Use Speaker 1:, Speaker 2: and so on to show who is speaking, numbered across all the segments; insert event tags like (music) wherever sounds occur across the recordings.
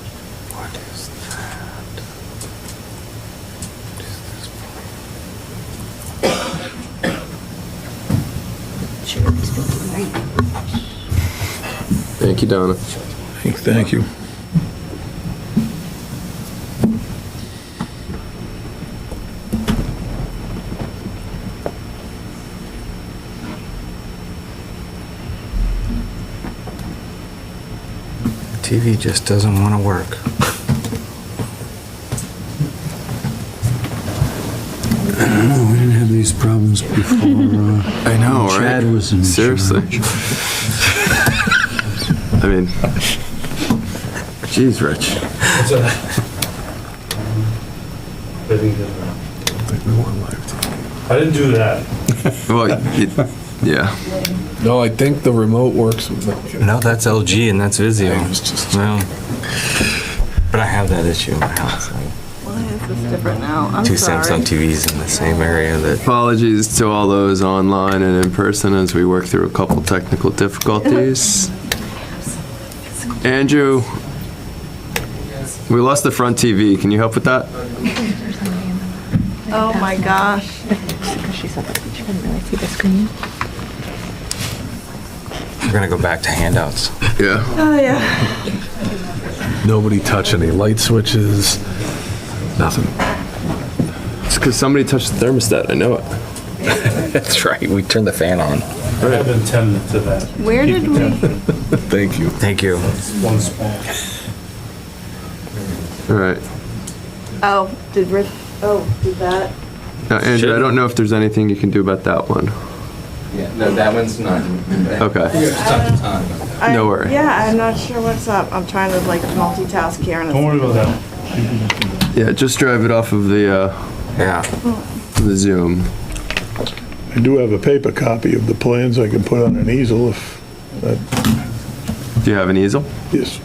Speaker 1: What is that? What is this for?
Speaker 2: Sure, these people, right?
Speaker 3: Thank you, Donna.
Speaker 4: Thank you.
Speaker 1: TV just doesn't want to work.
Speaker 5: No, we didn't have these problems before. uh,
Speaker 3: I know, right?
Speaker 5: Chad was in
Speaker 3: Seriously. (laughs) I mean, jeez, Rich.
Speaker 6: I think that's right. I didn't do that.
Speaker 3: Well, you, yeah.
Speaker 4: (laughs) No, I think the remote works with the
Speaker 1: No, that's LG and that's Vizio.
Speaker 4: I was just-
Speaker 1: Well, but I have that issue in my house. like,
Speaker 2: Why is this different now? I'm
Speaker 1: Two
Speaker 2: sorry.
Speaker 1: Samsung TVs in the same area that.
Speaker 3: Apologies to all those online and in person as we work through a couple technical difficulties. Andrew, we lost the front TV. Can you help with that?
Speaker 2: Oh, my gosh.
Speaker 1: We're gonna go back to handouts.
Speaker 3: Yeah.
Speaker 2: Oh, yeah.
Speaker 4: nobody touch any light switches, nothing.
Speaker 3: It's because somebody touched the thermostat. I know
Speaker 1: (laughs)
Speaker 3: it.
Speaker 1: That's right. We turned the fan on.
Speaker 6: I have been tended to that
Speaker 2: Where did we?
Speaker 4: Thank you.
Speaker 1: Thank you.
Speaker 6: once more.
Speaker 3: All right.
Speaker 2: Oh, did Rick, oh, did that?
Speaker 3: Now, Andrew, I don't know if there's anything you can do about that one.
Speaker 7: Yeah, no, that one's not.
Speaker 3: Okay.
Speaker 2: I-
Speaker 3: No worry.
Speaker 2: Yeah, I'm not sure what's up. I'm trying to like multitask here and
Speaker 6: Don't
Speaker 2: it's
Speaker 6: worry about that.
Speaker 3: Yeah, just drive it off of the uh,
Speaker 1: Yeah.
Speaker 3: the Zoom.
Speaker 8: I do have a paper copy of the plans I can put on an easel if,
Speaker 3: Do you have an easel?
Speaker 8: yes.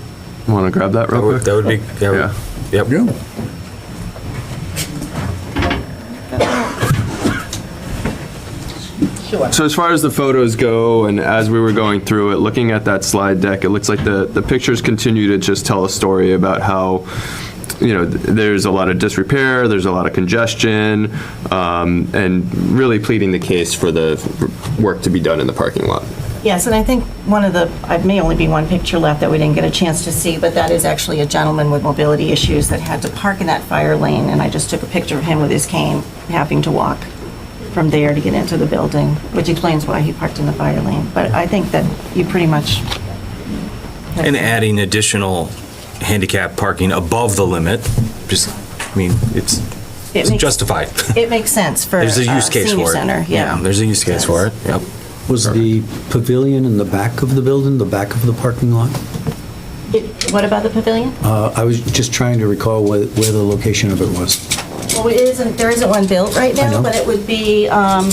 Speaker 3: Want to grab that
Speaker 1: That
Speaker 3: real
Speaker 1: would,
Speaker 3: quick?
Speaker 1: that would be. That
Speaker 3: Yeah.
Speaker 1: would, yep.
Speaker 3: So as far as the photos go, and as we were going through it, looking at that slide deck, it looks like the, the pictures continue to just tell a story about how, you know, th- there's a lot of disrepair, there's a lot of congestion, um, and really pleading the case for the work to be done in the parking lot.
Speaker 9: Yes, and I think one of the, I may only be one picture left that we didn't get a chance to see, but that is actually a gentleman with mobility issues that had to park in that fire lane, and I just took a picture of him with his cane, having to walk from there to get into the building, which explains why he parked in the fire lane. But I think that you pretty much,
Speaker 1: And adding additional handicap parking above the limit, just, I mean, it's
Speaker 9: It
Speaker 1: it's
Speaker 9: makes-
Speaker 1: justified.
Speaker 9: it makes sense for
Speaker 1: (laughs)
Speaker 9: uh,
Speaker 1: There's a
Speaker 9: senior
Speaker 1: use case for
Speaker 9: center,
Speaker 1: it.
Speaker 9: yeah.
Speaker 1: There's a use case for it. Yep.
Speaker 5: Was the pavilion in the back of the building, the back of the parking lot?
Speaker 9: It- What about the pavilion?
Speaker 5: Uh, I was just trying to recall where, where the location of it was.
Speaker 9: Well, it isn't, there isn't one built right
Speaker 5: I
Speaker 9: now,
Speaker 5: know.
Speaker 9: but it would be, um,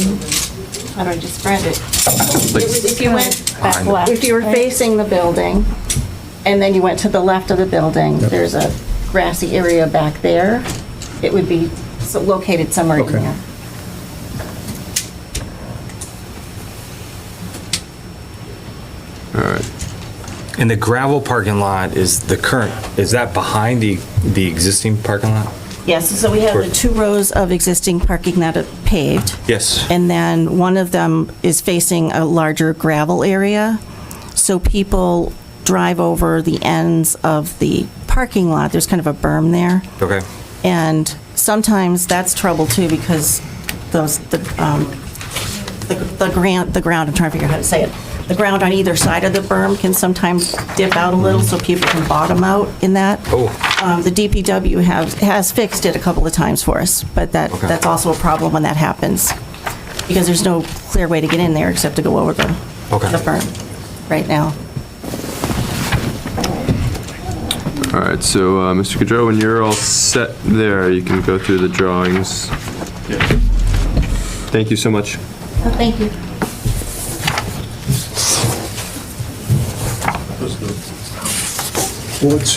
Speaker 9: how do I describe it? It would- If you went back left, if you were facing the building, and then you went to the left of the building, there's a grassy area back there. It would be so- located somewhere in
Speaker 5: Okay.
Speaker 9: there.
Speaker 3: All right.
Speaker 1: And the gravel parking lot is the current, is that behind the, the existing parking lot?
Speaker 9: Yes, so we have the two rows of existing parking that are paved.
Speaker 1: Yes.
Speaker 9: And then one of them is facing a larger gravel area. So people drive over the ends of the parking lot. There's kind of a berm there.
Speaker 1: Okay.
Speaker 9: And sometimes that's trouble too because those, the, um, the the grant, the ground, I'm trying to figure out how to say it. The ground on either side of the berm can sometimes dip out a little so people can bottom out in that.
Speaker 1: Oh.
Speaker 9: Um, The DPW have, has fixed it a couple of times for us, but that,
Speaker 1: Okay.
Speaker 9: that's also a problem when that happens. Because there's no clear way to get in there except to go over the,
Speaker 1: Okay.
Speaker 9: the berm right now.
Speaker 3: All right. So, uh, Mr. Gaudreau, when you're all set there, you can go through the drawings. Thank you so much.
Speaker 9: Thank you.
Speaker 5: What's